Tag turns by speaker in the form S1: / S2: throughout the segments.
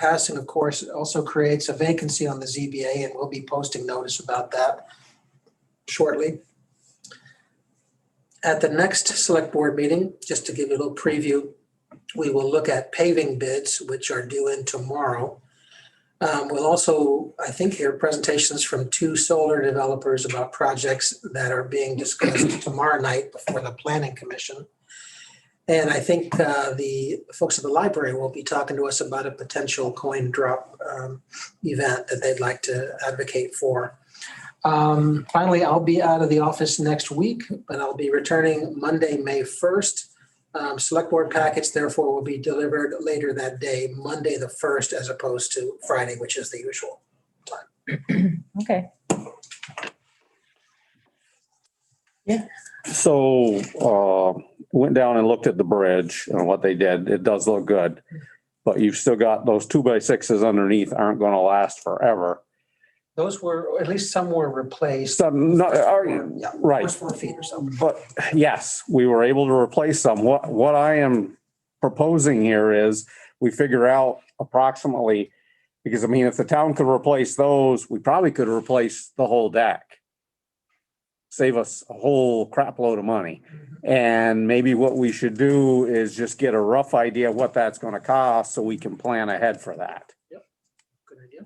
S1: passing, of course, also creates a vacancy on the ZBA, and we'll be posting notice about that shortly. At the next select board meeting, just to give you a little preview, we will look at paving bids, which are due in tomorrow. Um, We'll also, I think, hear presentations from two solar developers about projects that are being discussed tomorrow night before the planning commission. And I think uh, the folks at the library will be talking to us about a potential coin drop um, event that they'd like to advocate for. Um, Finally, I'll be out of the office next week, but I'll be returning Monday, May 1st. Um, Select board packets therefore will be delivered later that day, Monday the 1st, as opposed to Friday, which is the usual.
S2: Okay.
S3: So, uh, went down and looked at the bridge and what they did. It does look good. But you've still got those two by sixes underneath aren't gonna last forever.
S1: Those were, or at least some were replaced. Um,
S3: Some, not, Uh, are,
S1: Yeah,
S3: right.
S1: Four feet or so.
S3: But yes, we were able to replace some. What, what I am proposing here is we figure out approximately, because I mean, if the town could replace those, we probably could replace the whole deck. Save us a whole crap load of money. And maybe what we should do is just get a rough idea of what that's gonna cost so we can plan ahead for that.
S1: Good idea.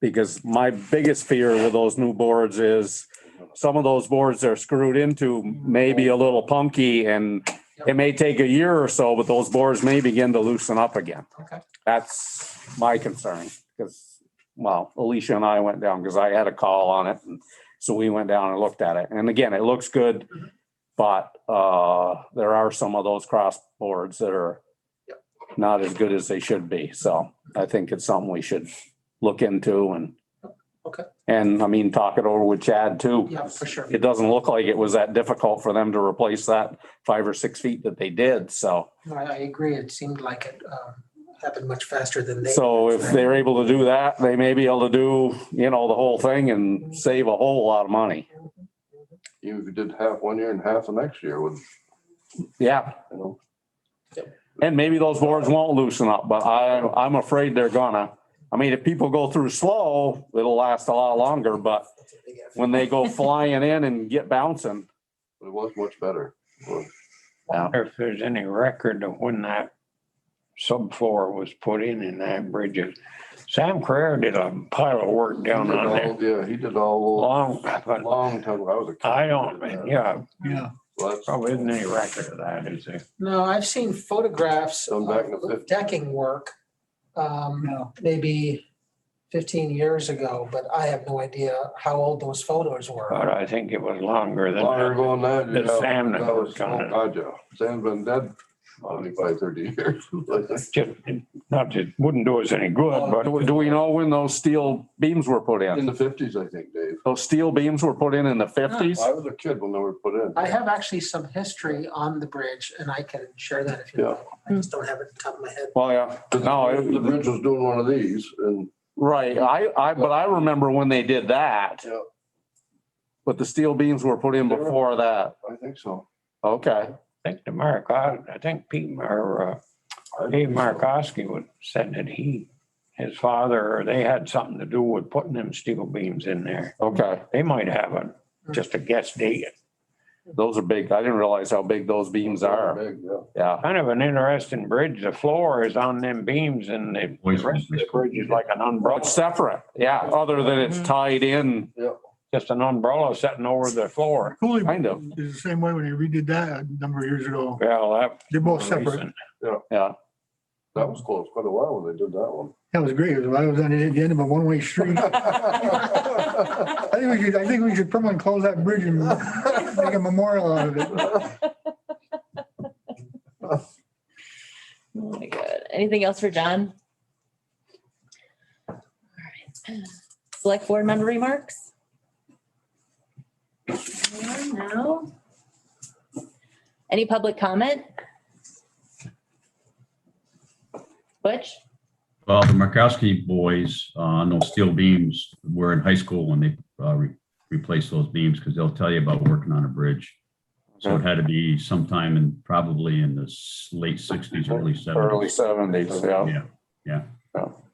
S3: Because my biggest fear with those new boards is some of those boards are screwed into maybe a little punky and it may take a year or so, but those boards may begin to loosen up again.
S1: Okay.
S3: That's my concern because, well, Alicia and I went down because I had a call on it. and So we went down and looked at it. And again, it looks good. But uh, there are some of those cross boards that are not as good as they should be. So I think it's something we should look into and
S1: Okay.
S3: and I mean, talk it over with Chad too.
S1: Yeah, for sure.
S3: It doesn't look like it was that difficult for them to replace that five or six feet that they did. So,
S1: No, I I agree. It seemed like it um, happened much faster than they.
S3: so if they're able to do that, they may be able to do, you know, the whole thing and save a whole lot of money.
S4: Even if you did half one year and half the next year with,
S3: Yeah.
S4: you know,
S3: And maybe those boards won't loosen up, but I, I'm afraid they're gonna. I mean, if people go through slow, it'll last a lot longer, but
S1: That's a big effort.
S3: when they go flying in and get bouncing.
S4: but it was much better. Well,
S5: wonder if there's any record of when that subfloor was put in in that bridge. Sam Carrera did a pile of work
S4: he
S5: down
S4: did
S5: on there
S4: all- Yeah, he did all,
S5: long,
S4: a
S5: but
S4: long time, ago. I was a kid.
S5: I don't, yeah,
S4: Well, that's-
S5: probably isn't any record of that, is there?
S1: No, I've seen photographs
S4: Going back to
S1: of
S4: 50.
S1: decking work, um, maybe fifteen years ago, but I have no idea how old those photos were.
S3: Uh,
S5: But I think it was longer than
S4: Longer
S5: that.
S4: ago than that.
S5: The
S4: yeah.
S5: Sam that
S4: That was,
S5: worked on it.
S4: oh, God, yeah. Sam's been dead twenty-five, thirty years.
S5: Just, not that, it wouldn't do us any good, but
S3: Do do we know when those steel beams were put in?
S4: In the fifties, I think, Dave.
S3: Those steel beams were put in in the fifties?
S4: I was a kid when they were put in.
S1: I have actually some history on the bridge and I can share that if you
S4: Yeah.
S1: like. I just don't have it at the top of my head.
S3: Well, yeah, no,
S4: The
S3: it-
S4: bridge was doing one of these and,
S3: right, I, I, but I remember when they did that,
S4: yeah,
S3: but the steel beams were put in before that.
S4: I think so.
S3: Okay,
S5: I think the Maricot, I think Pete, or uh,
S4: I think
S5: Dave
S4: so.
S5: Markowski would said that he, his father, or they had something to do with putting them steel beams in there.
S3: okay,
S5: They might have a, just a guess date.
S3: those are big. I didn't realize how big those beams are.
S4: Big, yeah.
S3: Yeah,
S5: Kind of an interesting bridge. The floor is on them beams and the the rest of the bridge is like an umbrella,
S3: but separate, yeah, other than
S6: Mm-hmm.
S3: it's tied in,
S5: just an umbrella sitting over the floor.
S7: Cooley
S3: kind of,
S7: is the same way when they redid that a number of years ago.
S5: Well, that.
S7: They're both separate.
S5: recent.
S3: yeah.
S4: That was close, quite a while when they did that one.
S7: That was great. It was- I was on the the end of a one-way street. I think we should, I think we should permanently close that bridge and make a memorial out of it.
S2: Oh my God. Anything else for John? All right. Select board member remarks? Anyone? No. Any public comment? Butch?
S6: Well, the Markowski boys uh, on those steel beams were in high school when they uh, re- replaced those beams because they'll tell you about working on a bridge. So it had to be sometime in probably in the s- late sixties, early seventies.
S3: seventies,
S6: Yeah, yeah.
S3: Well,